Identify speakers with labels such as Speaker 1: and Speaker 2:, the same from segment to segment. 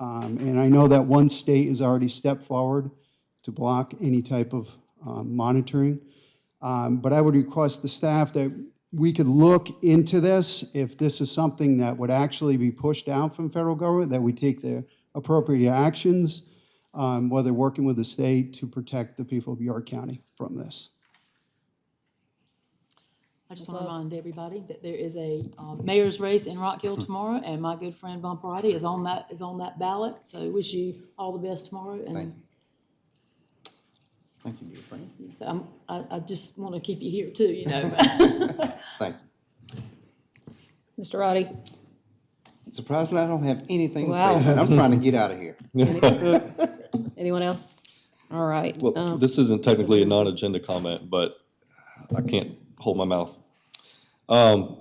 Speaker 1: Um, And I know that one state has already stepped forward to block any type of um, monitoring. Um, But I would request the staff that we could look into this, if this is something that would actually be pushed down from federal government, that we take the appropriate actions, um, whether working with the state to protect the people of York County from this.
Speaker 2: I just want to remind everybody that there is a um, mayor's race in Rock Hill tomorrow, and my good friend Bumparati is on that, is on that ballot. So wish you all the best tomorrow,
Speaker 3: Thank
Speaker 2: and
Speaker 3: Thank you, dear friend.
Speaker 2: I'm, I, I just want to keep you here too, you know.
Speaker 3: Thank you.
Speaker 4: Mr. Roddy?
Speaker 3: Surprisingly, I don't have anything to
Speaker 4: Wow.
Speaker 3: say. but I'm trying to get out of here.
Speaker 4: Anyone else? All right.
Speaker 5: Well,
Speaker 4: um,
Speaker 5: this isn't technically a non-agenda comment, but I can't hold my mouth. Um,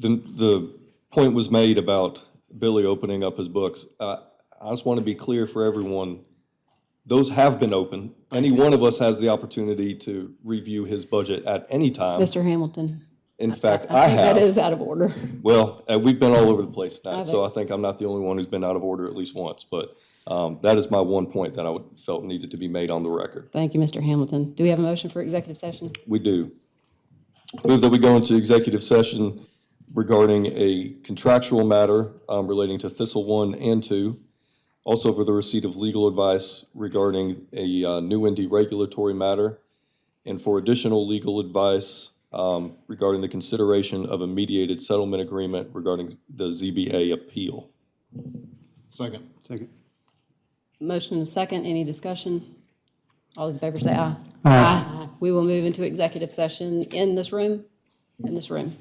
Speaker 5: The, the point was made about Billy opening up his books. Uh, I just want to be clear for everyone, those have been open. Any one of us has the opportunity to review his budget at any time.
Speaker 4: Mr. Hamilton?
Speaker 5: In fact, I
Speaker 4: think That is
Speaker 5: have.
Speaker 4: out of order.
Speaker 5: Well, uh, we've been all over the place
Speaker 4: I
Speaker 5: tonight, so I
Speaker 4: bet.
Speaker 5: think I'm not the only one who's been out of order at least once. But um, that is my one point that I would- felt needed to be made on the record.
Speaker 4: Thank you, Mr. Hamilton. Do we have a motion for executive session?
Speaker 5: We do. Move that we go into executive session regarding a contractual matter um, relating to Thistle One and Two. Also for the receipt of legal advice regarding a uh, new and regulatory matter. And for additional legal advice um, regarding the consideration of a mediated settlement agreement regarding the ZBA appeal.
Speaker 6: Second.
Speaker 1: Second.
Speaker 4: Motion and a second. Any discussion? All those in favor say aye. Aye. We will move into executive session in this room, in this room.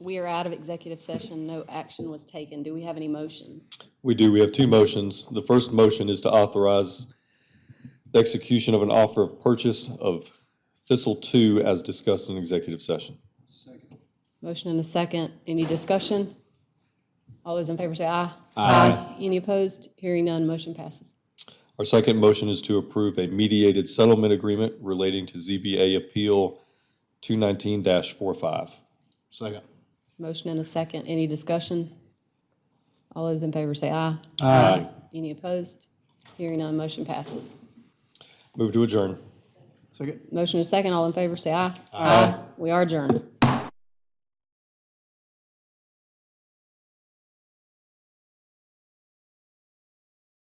Speaker 4: We are out of executive session. No action was taken. Do we have any motions?
Speaker 5: We do. We have two motions. The first motion is to authorize the execution of an offer of purchase of Thistle Two as discussed in executive session.
Speaker 4: Motion and a second. Any discussion? All those in favor say aye. Aye. Any opposed? Hearing none, motion passes.
Speaker 5: Our second motion is to approve a mediated settlement agreement relating to ZBA Appeal two nineteen 45
Speaker 6: Second.
Speaker 4: Motion and a second. Any discussion? All those in favor say aye.
Speaker 5: Aye.
Speaker 4: Any opposed? Hearing none, motion passes.
Speaker 5: Move to adjourn.
Speaker 1: Second.
Speaker 4: Motion and a second. All in favor say aye. Aye. We are adjourned.